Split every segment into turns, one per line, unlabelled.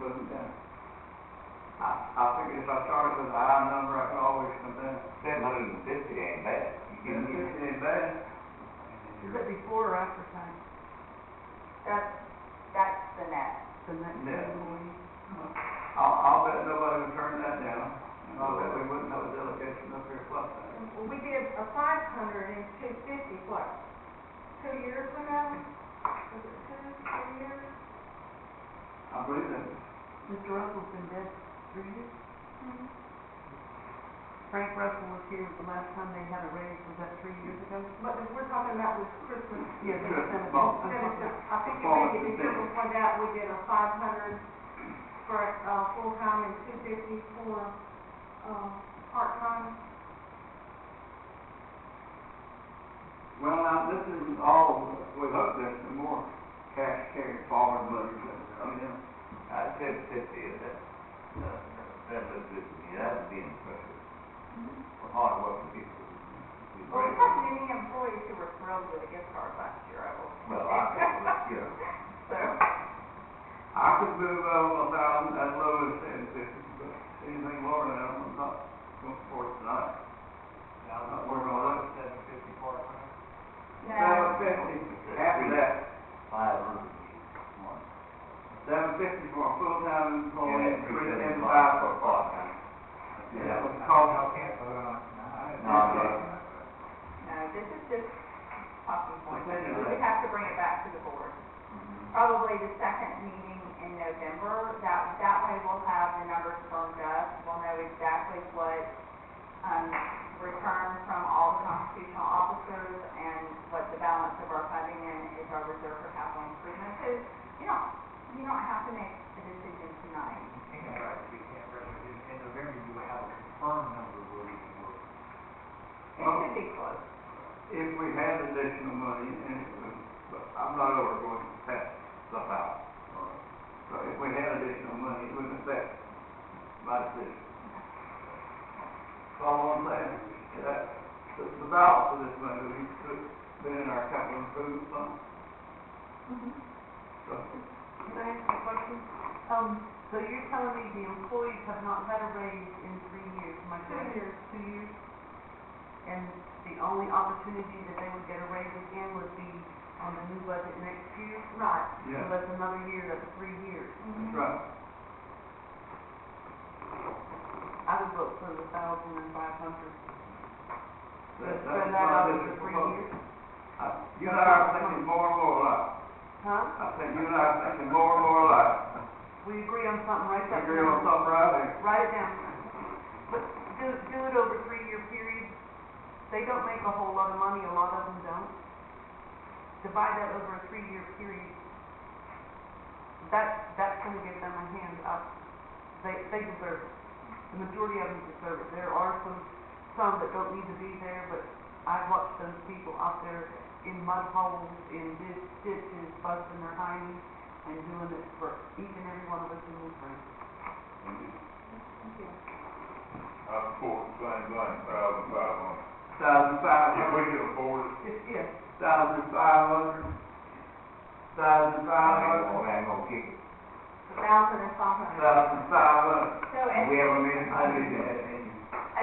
putting down. I, I figured if I started with a high number, I could always come down.
Seven hundred and fifty ain't bad. You
And
can get
it ain't bad.
Is it before or after tax?
That's, that's the net.
The next
Yeah.
employee?
I'll, I'll bet nobody would turn that down, and I'll bet we wouldn't have a delegation up here plus that.
Well, we did a five hundred and two fifty, what, two years ago? Was it two, three years?
I believe that.
Mr. Russell's been dead three years. Frank Russell was here the last time they had a raise, was that three years ago?
But if we're talking about this Christmas.
Yeah, they sent it.
Well,
I'm talking
Then it's
about-
a- I think it may be the year before that, we did a five hundred for, uh, full-time and two fifty for, uh, part-time.
Well, now, this is all, we hope there's some more cash carried forward, but, I mean,
I said fifty of that, uh, that was good to me, that would be impressive. For hard working people. We
Well, we
break-
had many employees who were thrilled with a gift card last year, I will.
Well, I think, let's go.
So,
I could move over a thousand, as low as ten fifty, but anything lower than that, I'm not going for it tonight. I'm not working on that.
Seven fifty part-time.
Seven
no,
fifty, after that,
Five hundred one.
seven fifty for a full-time employee,
Yeah,
and
three
three
seventy
seventy-five
five
for a
for
part-time.
part-time.
Yeah,
Yeah.
but the cost
Y'all can't vote on it tonight.
No, I'm not.
no, this is just talking points.
Okay,
We would have to bring it back to the board. Probably the second meeting in November, that, that way we'll have the numbers firmed up. We'll know exactly what, um, returned from all the constitutional officers and what the balance of our funding in is our reserve for capital improvement. So, you don't, you don't have to make a decision tonight.
You can't, right, you can't, right, in in November, you will have a confirmed number where you can work.
It
Oh.
should be close.
if we had additional money, and, it was- but I'm not over going to pass stuff out. So if we had additional money, it wouldn't affect my decision. So all I'm saying, is that, the, the balance of this money, we could put in our capital improvement fund.
Mm-hmm.
So,
Can I ask you a question? Um, so you're telling me the employees have not had a raise in three years, am I correct?
Two years.
Two years? And the only opportunity that they would get a raise again would be on the new budget next year? Right. So
yeah,
that's another year, that's three years.
that's right.
I would vote for the thousand and five hundred.
That,
Spread
that's
that
why
out
this
over
is
three
proposed.
years.
I- You and I are thinking more and more alike.
Huh?
I think you and I are thinking more and more alike.
We agree on something, right?
We Agree on something right there.
Write it down. But do, do it over three-year period. They don't make a whole lot of money, a lot of them don't. Divide that over a three-year period. That, that's gonna give them a hand up. They, they deserve it. The majority of them deserve it. There are some, some that don't need to be there, but I've watched those people out there in mud holes, in ditch- ditches, busting their hinds and doing it for each and every one of us in this room.
I support the same thing, thousand five hundred.
Thousand five
If we
hundred,
can afford it,
Just, yes,
thousand five hundred, thousand five hundred,
I ain't gonna kick it.
A thousand and five hundred.
thousand five hundred.
So, and,
We have a million, I need that, and
I,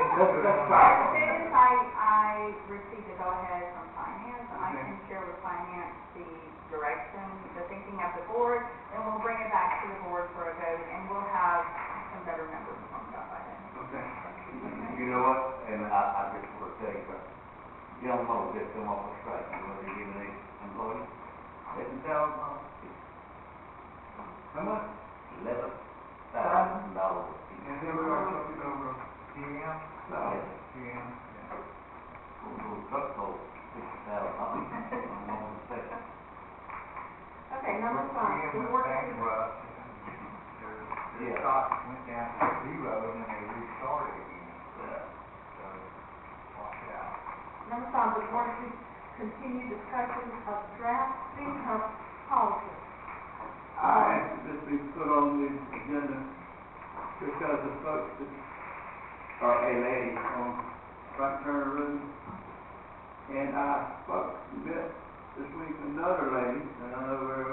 As soon as I, I receive the go-ahead from finance, I can share with finance the direction, the thinking of the board, and we'll bring it back to the board for a vote, and we'll have some better numbers from that by then.
Okay.
You know what, and I, I just want to tell you, but young folks that come off the strike, you know, they're giving these employees, eleven thousand dollars.
How much?
Eleven thousand dollars.
And then we're gonna put it over.
GM,
Thousand.
GM, yeah.
Little little truck sold sixty thousand dollars, I'm not mistaken.
Okay, number five, the
GM
board
went
is
bankrupt, and their, their
Yeah.
stock went down to zero, and then they restarted again, so, watch it out.
Number five, the board to continue discussion of draft income policy.
I asked that this be put on the agenda because the folks that are LA on Frank Turner Road. And I spoke to Beth this week, another lady,